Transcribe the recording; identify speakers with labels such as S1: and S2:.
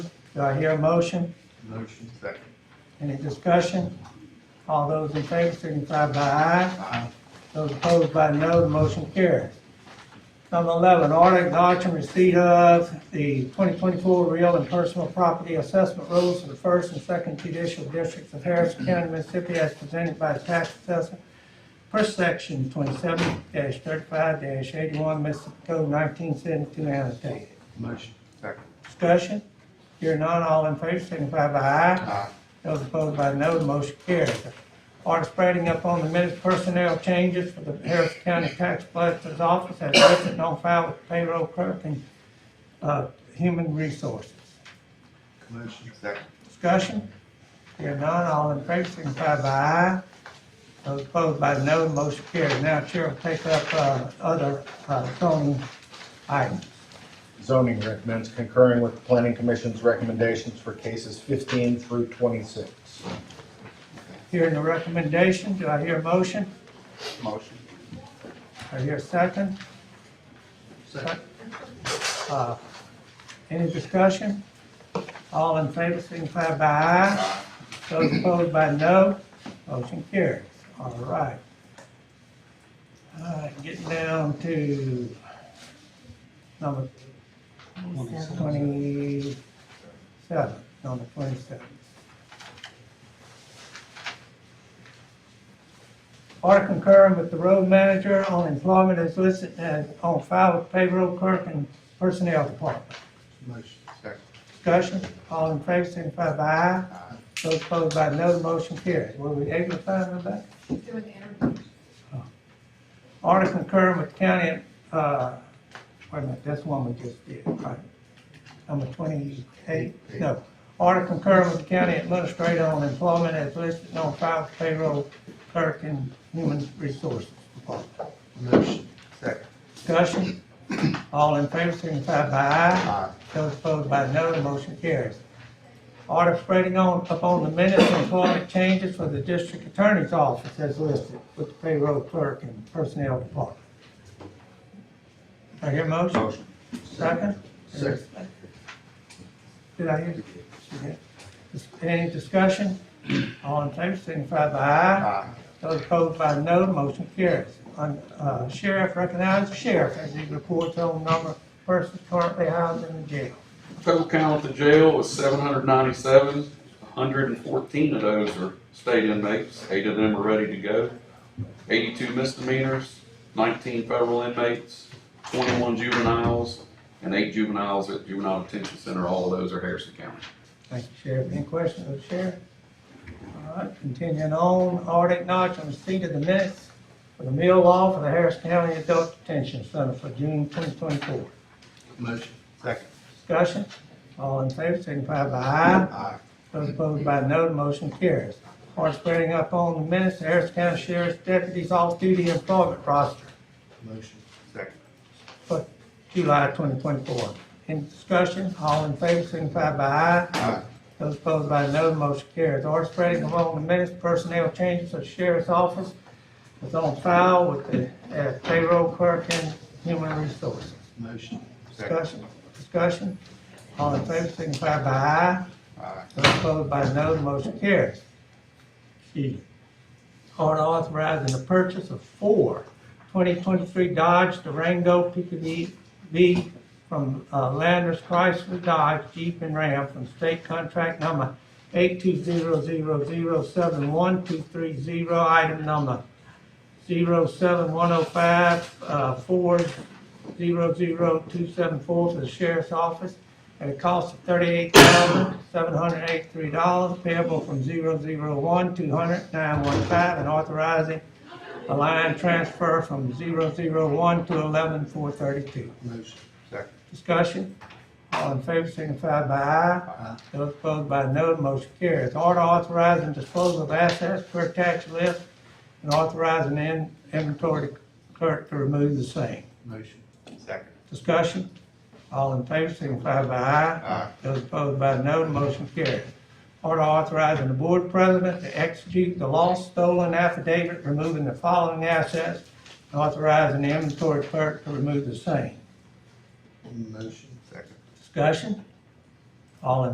S1: Do I hear a motion?
S2: Motion. Second.
S1: Any discussion? All those in favor signify by aye.
S2: Aye.
S1: Those opposed by no, the motion carries. Number eleven, order acknowledging receipt of the twenty twenty-four real and personal property assessment rules for the first and second judicial districts of Harris County, Mississippi, as presented by the tax assessor per section twenty-seven thirty-five eighty-one, Mississippi Code nineteen seventy-two annotated.
S2: Motion. Second.
S1: Discussion? Here none, all in favor, signify by aye.
S2: Aye.
S1: Those opposed by no, the motion carries. Order spreading up on the minutes personnel changes for the Harris County Tax Collector's Office as listed on file with payroll clerk and, uh, human resources.
S2: Motion. Second.
S1: Discussion? Here none, all in favor, signify by aye. Those opposed by no, the motion carries. Now Chair will take up, uh, other, uh, zoning items.
S3: Zoning recommends concurring with the planning commission's recommendations for cases fifteen through twenty-six.
S1: Hearing the recommendation, do I hear a motion?
S2: Motion.
S1: I hear a second.
S2: Second.
S1: Uh, Any discussion? All in favor, signify by aye. Those opposed by no, motion carries. All right. All right, getting down to number twenty-seven, number twenty-seven. Order concurring with the road manager on employment as listed as on file with payroll clerk and personnel department.
S2: Motion. Second.
S1: Discussion, all in favor, signify by aye.
S2: Aye.
S1: Those opposed by no, the motion carries. Were we able to find Rebecca?
S4: doing the interview.
S1: Order concurring with county, uh, wait a minute, that's one we just did, right? Number twenty-eight, no. Order concurring with the county administrator on employment as listed on file with payroll clerk and human resources department.
S2: Motion. Second.
S1: Discussion, all in favor, signify by aye.
S2: Aye.
S1: Those opposed by no, the motion carries. Order spreading on, upon the minutes and employment changes for the district attorney's office as listed with the payroll clerk and personnel department. I hear a motion,
S2: Motion.
S1: second?
S2: Second.
S1: Did I hear? Okay. Any discussion? All in favor, signify by aye.
S2: Aye.
S1: Those opposed by no, the motion carries. On, uh, Sheriff recognizes sheriff as he reports on number of persons currently housed in the jail.
S5: Total count at the jail was seven hundred ninety-seven, hundred and fourteen of those are state inmates, eight of them are ready to go. Eighty-two misdemeanors, nineteen federal inmates, twenty-one juveniles, and eight juveniles at juvenile detention center, all of those are Harrison County.
S1: Thank you, Sheriff. Any questions of the sheriff? All right, continuing on, order acknowledging receipt of the minutes for the meal law for the Harris County Adult Detention Center for June twenty twenty-four.
S2: Motion. Second.
S1: Discussion, all in favor, signify by aye.
S2: Aye.
S1: Those opposed by no, the motion carries. Order spreading up on the minutes, the Harris County Sheriff's Deputies Off-Duty Employment Roster
S2: Motion. Second.
S1: for July twenty twenty-four. Any discussion, all in favor, signify by aye.
S2: Aye.
S1: Those opposed by no, the motion carries. Order spreading among the minutes, personnel changes of sheriff's office is on file with the uh, payroll clerk and human resources.
S2: Motion. Second.
S1: Discussion, discussion, all in favor, signify by aye.
S2: Aye.
S1: Those opposed by no, the motion carries. E, order authorizing the purchase of four 2023 Dodge Durango PPV from uh, Landers Chrysler Dodge Jeep and Ram from state contract number 82000712330, item number uh, 07105-400274 for the sheriff's office at a cost of $38,783 payable from 001 200 915 and authorizing a line transfer from 001 to 11432.
S2: Motion. Second.
S1: Discussion, all in favor signify by aye. Those opposed by no, the motion carries. Order authorizing disposal of assets per tax list and authorizing in- inventory clerk to remove the same.
S2: Motion. Second.
S1: Discussion, all in favor signify by aye.
S2: Aye.
S1: Those opposed by no, the motion carries. Order authorizing the board president to execute the lost stolen affidavit, removing the following assets, and authorizing the inventory clerk to remove the same.
S2: Motion. Second.
S1: Discussion, all in